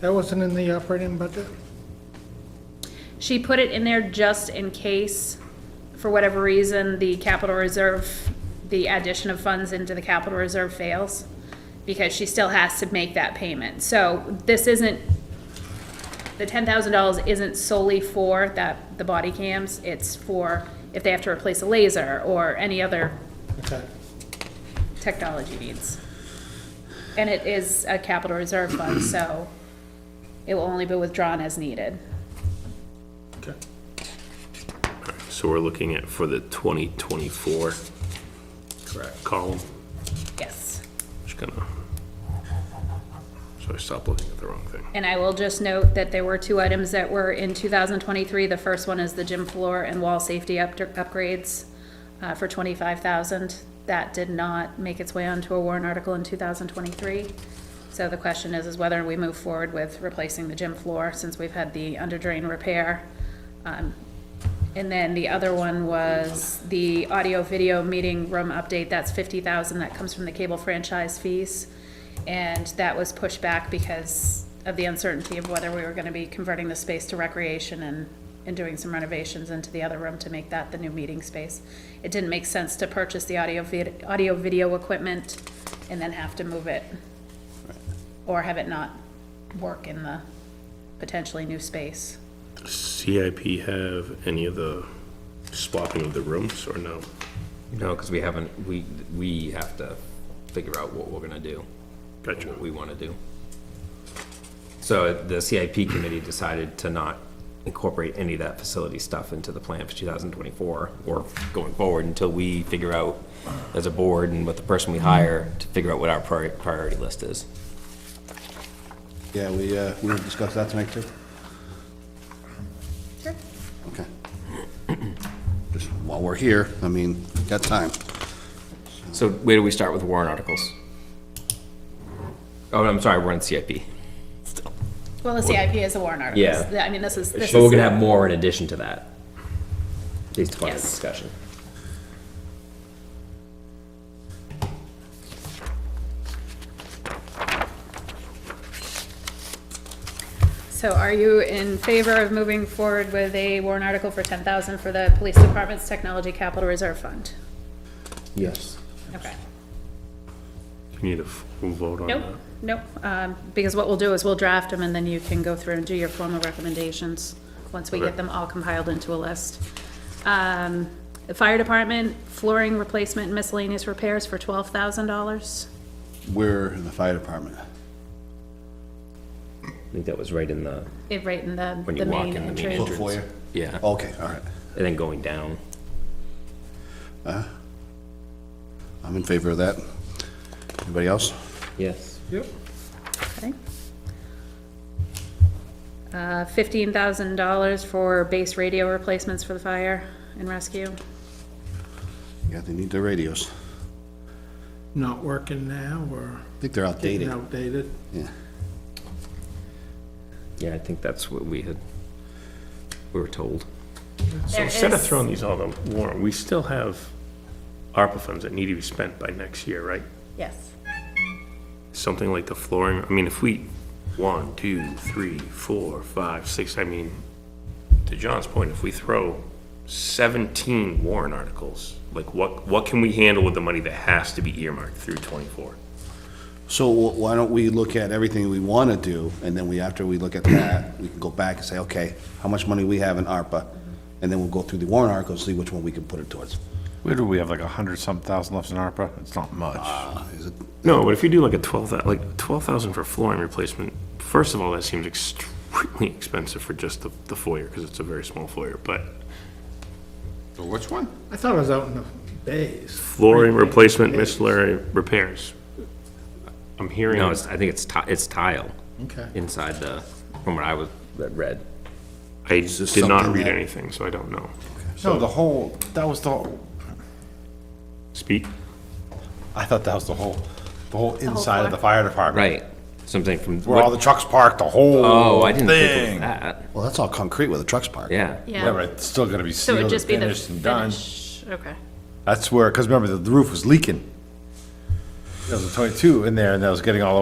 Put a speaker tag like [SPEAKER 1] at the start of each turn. [SPEAKER 1] That wasn't in the operating budget?
[SPEAKER 2] She put it in there just in case, for whatever reason, the capital reserve, the addition of funds into the capital reserve fails, because she still has to make that payment. So this isn't, the ten thousand dollars isn't solely for that, the body cams, it's for if they have to replace a laser or any other
[SPEAKER 1] Okay.
[SPEAKER 2] technology needs. And it is a capital reserve fund, so it will only be withdrawn as needed.
[SPEAKER 1] Okay.
[SPEAKER 3] So we're looking at for the 2024. Correct. Column,
[SPEAKER 2] Yes.
[SPEAKER 3] just gonna, so I stopped looking at the wrong thing.
[SPEAKER 2] And I will just note that there were two items that were in 2023. The first one is the gym floor and wall safety up- upgrades uh, for 25,000. That did not make its way onto a warrant article in 2023. So the question is, is whether we move forward with replacing the gym floor since we've had the under drain repair. Um, And then the other one was the audio-video meeting room update. That's 50,000. That comes from the cable franchise fees. And that was pushed back because of the uncertainty of whether we were gonna be converting the space to recreation and, and doing some renovations into the other room to make that the new meeting space. It didn't make sense to purchase the audio vid, audio video equipment and then have to move it. Or have it not work in the potentially new space.
[SPEAKER 3] Does CIP have any of the swapping of the rooms or no?
[SPEAKER 4] No, because we haven't, we, we have to figure out what we're gonna do,
[SPEAKER 3] Gotcha.
[SPEAKER 4] what we wanna do. So the CIP committee decided to not incorporate any of that facility stuff into the plan for two thousand twenty-four or going forward until we figure out as a board and with the person we hire to figure out what our priori- priority list is.
[SPEAKER 5] Yeah, we, uh, we gonna discuss that tonight too? Okay. Just while we're here, I mean, got time.
[SPEAKER 4] So where do we start with warrant articles? Oh, I'm sorry, we're on CIP.
[SPEAKER 2] Well, the CIP is a warrant article.
[SPEAKER 4] Yeah.
[SPEAKER 2] I mean, this is, this is.
[SPEAKER 4] But we're gonna have more in addition to that, based upon this
[SPEAKER 2] Yes.
[SPEAKER 4] discussion.
[SPEAKER 2] So are you in favor of moving forward with a warrant article for ten thousand for the police department's technology capital reserve fund?
[SPEAKER 4] Yes.
[SPEAKER 2] Okay.
[SPEAKER 3] You need a full vote on that?
[SPEAKER 2] Nope, nope, um, because what we'll do is we'll draft them and then you can go through and do your formal recommendations, once we get
[SPEAKER 3] Okay.
[SPEAKER 2] them all compiled into a list. Um, the fire department flooring replacement and miscellaneous repairs for twelve thousand dollars.
[SPEAKER 5] We're in the fire department.
[SPEAKER 4] I think that was right in the,
[SPEAKER 2] It right in the,
[SPEAKER 4] When you
[SPEAKER 2] the
[SPEAKER 4] walk
[SPEAKER 2] main
[SPEAKER 4] in the main
[SPEAKER 2] entrance.
[SPEAKER 5] Full foyer?
[SPEAKER 4] yeah,
[SPEAKER 5] Okay, all right.
[SPEAKER 4] and then going down.
[SPEAKER 5] I'm in favor of that. Anybody else?
[SPEAKER 4] Yes.
[SPEAKER 1] Yep.
[SPEAKER 2] Okay. Uh, fifteen thousand dollars for base radio replacements for the fire and rescue.
[SPEAKER 5] Yeah, they need their radios.
[SPEAKER 1] Not working now or
[SPEAKER 5] I think they're
[SPEAKER 1] getting
[SPEAKER 5] outdated.
[SPEAKER 1] outdated?
[SPEAKER 5] Yeah.
[SPEAKER 4] Yeah, I think that's what we had, we were told.
[SPEAKER 3] So instead of throwing these all on the warrant, we still have ARPA funds that need to be spent by next year, right?
[SPEAKER 2] Yes.
[SPEAKER 3] Something like the flooring, I mean, if we, one, two, three, four, five, six, I mean, to John's point, if we throw seventeen warrant articles, like what, what can we handle with the money that has to be earmarked through twenty-four?
[SPEAKER 5] So wh- why don't we look at everything we want to do, and then we, after we look at that, we can go back and say, okay, how much money we have in ARPA? And then we'll go through the warrant articles, see which one we can put it towards.
[SPEAKER 6] Where do we have like a hundred some thousand left in ARPA? It's not much.
[SPEAKER 5] Uh, Is it
[SPEAKER 3] No, but if you do like a twelve thou, like twelve thousand for flooring replacement, first of all, that seems extremely expensive for just the, the foyer, because it's a very small foyer, but
[SPEAKER 5] Which one?
[SPEAKER 1] I thought it was out in the bays.
[SPEAKER 3] flooring replacement miscellaneous repairs. I'm hearing.
[SPEAKER 4] No, it's, I think it's ti, it's tile
[SPEAKER 1] Okay.
[SPEAKER 4] inside the, from what I was, that read.
[SPEAKER 3] I
[SPEAKER 5] this
[SPEAKER 3] did not
[SPEAKER 5] something
[SPEAKER 3] read
[SPEAKER 5] that-
[SPEAKER 3] anything, so I don't know.
[SPEAKER 6] No, the whole, that was the,
[SPEAKER 3] Speak?
[SPEAKER 6] I thought that was the whole, the whole inside of the fire department.
[SPEAKER 4] Right, something from.
[SPEAKER 6] Where all the trucks parked, the whole
[SPEAKER 4] Oh, I didn't think it was
[SPEAKER 6] thing.
[SPEAKER 4] that,
[SPEAKER 5] Well, that's all concrete where the trucks parked.
[SPEAKER 4] yeah.
[SPEAKER 6] Yeah, but
[SPEAKER 2] Yeah.
[SPEAKER 6] it's still gonna be
[SPEAKER 2] So it'd
[SPEAKER 6] sealed and
[SPEAKER 2] just be the
[SPEAKER 6] finished and done.
[SPEAKER 2] finish, okay.
[SPEAKER 6] That's where, because remember, the roof was leaking. There was a twenty-two in there and that was getting all